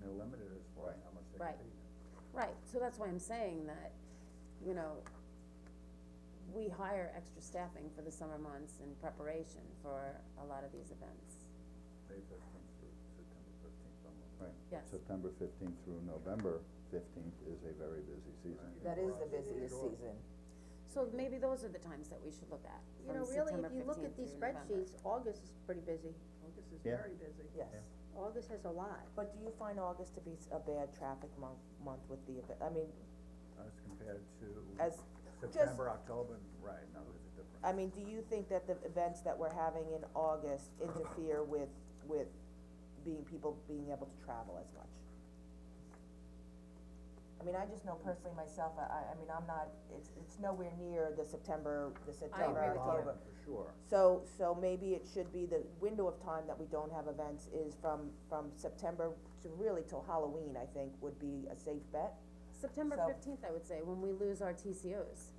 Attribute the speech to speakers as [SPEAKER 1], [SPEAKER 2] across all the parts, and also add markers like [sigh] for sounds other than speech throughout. [SPEAKER 1] for it, how much they
[SPEAKER 2] Right.
[SPEAKER 1] can pay them.
[SPEAKER 2] Right, so that's why I'm saying that, you know, we hire extra staffing for the summer months in preparation for a lot of these events.
[SPEAKER 1] May fifteenth through September fifteenth, almost.
[SPEAKER 3] Right.
[SPEAKER 2] Yes.
[SPEAKER 3] September fifteenth through November fifteenth is a very busy season.
[SPEAKER 1] Right.
[SPEAKER 4] That is the busiest season.
[SPEAKER 2] So maybe those are the times that we should look at,
[SPEAKER 5] You
[SPEAKER 2] from
[SPEAKER 5] know, really,
[SPEAKER 2] September
[SPEAKER 5] if you look at
[SPEAKER 2] fifteenth
[SPEAKER 5] these
[SPEAKER 2] through November.
[SPEAKER 5] spreadsheets, August is pretty busy.
[SPEAKER 6] August is
[SPEAKER 3] Yeah.
[SPEAKER 6] very busy.
[SPEAKER 4] Yes.
[SPEAKER 5] August has a lot.
[SPEAKER 4] But do you find August to be s- a bad traffic month, month with the event, I mean,
[SPEAKER 1] As compared to
[SPEAKER 4] as, just,
[SPEAKER 1] September, October, right, now there's a difference.
[SPEAKER 4] I mean, do you think that the events that we're having in August interfere with, with being, people being able to travel as much? I mean, I just know personally myself, I- I, I mean, I'm not, it's, it's nowhere near the September, the September,
[SPEAKER 2] with you.
[SPEAKER 4] October.
[SPEAKER 1] Bottom, For sure.
[SPEAKER 4] So, so maybe it should be the window of time that we don't have events is from, from September to really till Halloween, I think, would be a safe bet.
[SPEAKER 2] September
[SPEAKER 4] So-
[SPEAKER 2] fifteenth, I would say, when we lose our TCOs.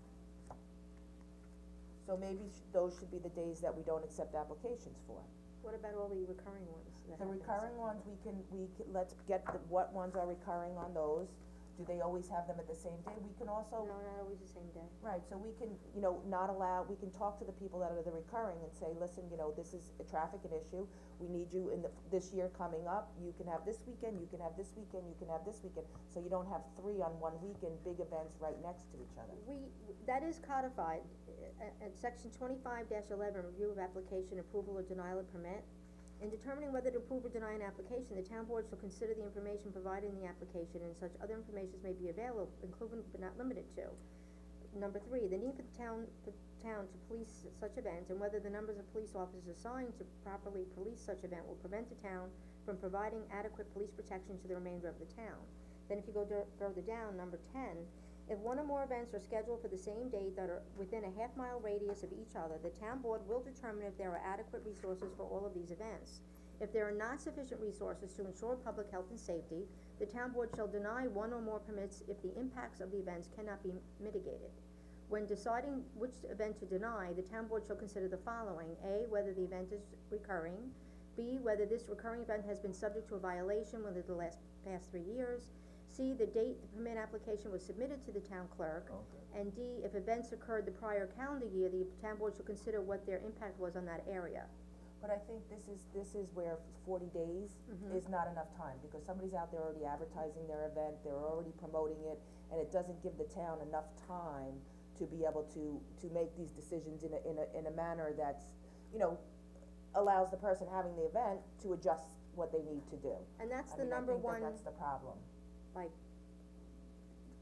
[SPEAKER 4] So maybe sh- those should be the days that we don't accept applications for.
[SPEAKER 5] What about all the recurring ones that
[SPEAKER 4] The
[SPEAKER 5] happens?
[SPEAKER 4] recurring ones, we can, we, c- let's get the, what ones are recurring on those, do they always have them at the same day? We can
[SPEAKER 5] No,
[SPEAKER 4] also,
[SPEAKER 5] not always the same day.
[SPEAKER 4] right, so we can, you know, not allow, we can talk to the people that are the recurring and say, listen, you know, this is a traffic and issue, we need you in the, this year coming up, you can have this weekend, you can have this weekend, you can have this weekend, so you don't have three on one weekend, big events right next to each other.
[SPEAKER 5] We, that is codified, at, at section twenty-five eleven, review of application, approval or denial of permit. In determining whether to approve or deny an application, the town board shall consider the information provided in the application and such other information as may be available, including but not limited to. Number three, the need for the town, the town to police such events and whether the numbers of police officers assigned to properly police such event will prevent the town from providing adequate police protection to the remainder of the town. Then if you go dur- further down, number ten, if one or more events are scheduled for the same date that are within a half mile radius of each other, the town board will determine if there are adequate resources for all of these events. If there are not sufficient resources to ensure public health and safety, the town board shall deny one or more permits if the impacts of the events cannot be mitigated. When deciding which event to deny, the town board shall consider the following, A, whether the event is recurring, B, whether this recurring event has been subject to a violation within the last, past three years, C, the date the permit application was submitted to the town clerk,
[SPEAKER 1] Okay.
[SPEAKER 5] and D, if events occurred the prior calendar year, the town board shall consider what their impact was on that area.
[SPEAKER 4] But I think this is, this is where forty days
[SPEAKER 5] Mm-hmm.
[SPEAKER 4] is not enough time, because somebody's out there already advertising their event, they're already promoting it, and it doesn't give the town enough time to be able to, to make these decisions in a, in a, in a manner that's, you know, allows the person having the event to adjust what they need to do.
[SPEAKER 5] And that's
[SPEAKER 4] I
[SPEAKER 5] the
[SPEAKER 4] mean, I
[SPEAKER 5] number
[SPEAKER 4] think that
[SPEAKER 5] one
[SPEAKER 4] that's the problem.
[SPEAKER 5] like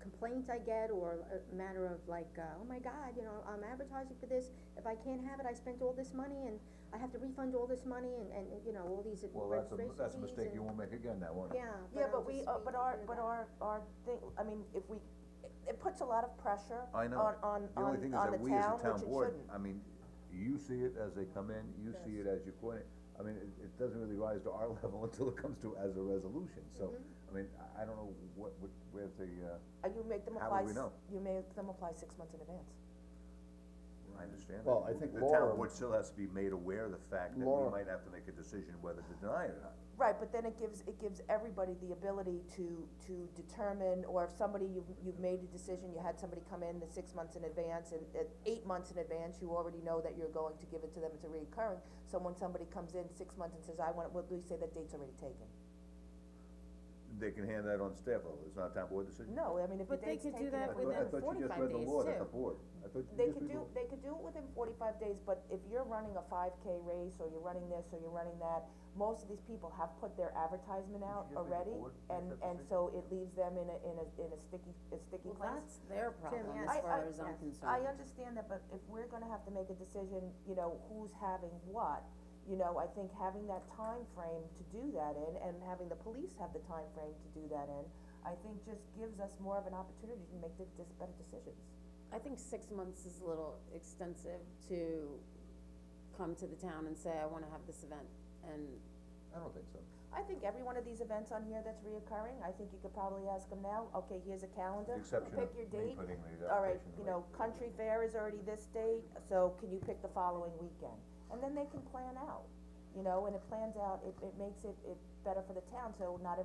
[SPEAKER 5] complaint I get or a matter of like, uh, oh my god, you know, I'm advertising for this, if I can't have it, I spent all this money and I have to refund all this money and, and, you know, all these
[SPEAKER 1] Well, that's a,
[SPEAKER 5] registration
[SPEAKER 1] that's a
[SPEAKER 5] fees
[SPEAKER 1] mistake you
[SPEAKER 5] and-
[SPEAKER 1] won't make again, that one.
[SPEAKER 5] Yeah,
[SPEAKER 4] Yeah,
[SPEAKER 5] I'm
[SPEAKER 4] but we,
[SPEAKER 5] just
[SPEAKER 4] uh,
[SPEAKER 5] being
[SPEAKER 4] but our,
[SPEAKER 5] clear
[SPEAKER 4] but
[SPEAKER 5] that-
[SPEAKER 4] our, our thing, I mean, if we, it, it puts a lot of pressure
[SPEAKER 1] I
[SPEAKER 4] on,
[SPEAKER 1] know.
[SPEAKER 4] on, on,
[SPEAKER 1] The only thing is
[SPEAKER 4] on the
[SPEAKER 1] that we as a
[SPEAKER 4] town, which it
[SPEAKER 1] town
[SPEAKER 4] shouldn't.
[SPEAKER 1] board, I mean, you see it as they come in, you see it as you coin it. I mean, it, it doesn't really rise to our [laughs] level until it comes to as a resolution, so,
[SPEAKER 4] Mm-hmm.
[SPEAKER 1] I mean, I, I don't know what, what, where the, uh,
[SPEAKER 4] Uh, you make them
[SPEAKER 1] How
[SPEAKER 4] apply,
[SPEAKER 1] would we
[SPEAKER 4] s-
[SPEAKER 1] know?
[SPEAKER 4] you make them apply six months in advance.
[SPEAKER 1] I understand.
[SPEAKER 3] Well,
[SPEAKER 1] that.
[SPEAKER 3] I think
[SPEAKER 1] The
[SPEAKER 3] Laura-
[SPEAKER 1] town board still has to be made aware of the fact that we
[SPEAKER 3] Laura-
[SPEAKER 1] might have to make a decision whether to deny it or not.
[SPEAKER 4] Right, but then it gives, it gives everybody the ability to, to determine, or if somebody, you've, you've made a decision, you had somebody come in the six months in advance, and at eight months in advance, you already know that you're going to give it to them, it's a recurring. So when somebody comes in six months and says, I want, it," what do we say, that date's already taken?
[SPEAKER 1] They can hand that on staff level, it's not a town board decision.
[SPEAKER 4] No, I mean, if
[SPEAKER 2] But
[SPEAKER 4] the
[SPEAKER 2] they
[SPEAKER 4] date's
[SPEAKER 2] could do
[SPEAKER 4] taken,
[SPEAKER 2] that
[SPEAKER 4] it
[SPEAKER 1] I thought- I
[SPEAKER 2] within
[SPEAKER 4] would-
[SPEAKER 1] thought you just
[SPEAKER 2] 45
[SPEAKER 1] read the
[SPEAKER 2] days
[SPEAKER 1] law, that
[SPEAKER 2] too.
[SPEAKER 1] the board, I thought you
[SPEAKER 4] They
[SPEAKER 1] just read
[SPEAKER 4] could
[SPEAKER 1] the
[SPEAKER 4] do,
[SPEAKER 1] law.
[SPEAKER 4] they could do it within forty-five days, but if you're running a five K race, or you're running this, or you're running that, most of these people have put their advertisement out
[SPEAKER 1] you just make the
[SPEAKER 4] already,
[SPEAKER 1] board make
[SPEAKER 4] and,
[SPEAKER 1] that
[SPEAKER 4] and so it leaves them in a, in a, in a sticky, a
[SPEAKER 2] Well,
[SPEAKER 4] sticky place.
[SPEAKER 2] that's their problem,
[SPEAKER 5] yeah.
[SPEAKER 2] as
[SPEAKER 4] I-
[SPEAKER 2] far
[SPEAKER 4] I-
[SPEAKER 2] as I'm
[SPEAKER 5] yes.
[SPEAKER 2] concerned.
[SPEAKER 4] I understand that, but if we're gonna have to make a decision, you know, who's having what, you know, I think having that time frame to do that in, and having the police have the time frame to do that in, I think just gives us more of an opportunity to make the, just better decisions.
[SPEAKER 2] I think six months is a little extensive to come to the town and say, I wanna have this event, and,
[SPEAKER 1] I don't think so.
[SPEAKER 4] I think every one of these events on here that's reoccurring, I think you could probably ask them now, okay, here's a calendar,
[SPEAKER 1] Exception
[SPEAKER 4] pick
[SPEAKER 1] of
[SPEAKER 4] your
[SPEAKER 1] me
[SPEAKER 4] date.
[SPEAKER 1] putting the
[SPEAKER 4] All right,
[SPEAKER 1] application
[SPEAKER 4] you
[SPEAKER 1] away.
[SPEAKER 4] know, country fair is already this date, so can you pick the following weekend? And then they can plan out, you know, and it plans out, it, it makes it, it better for the town, so not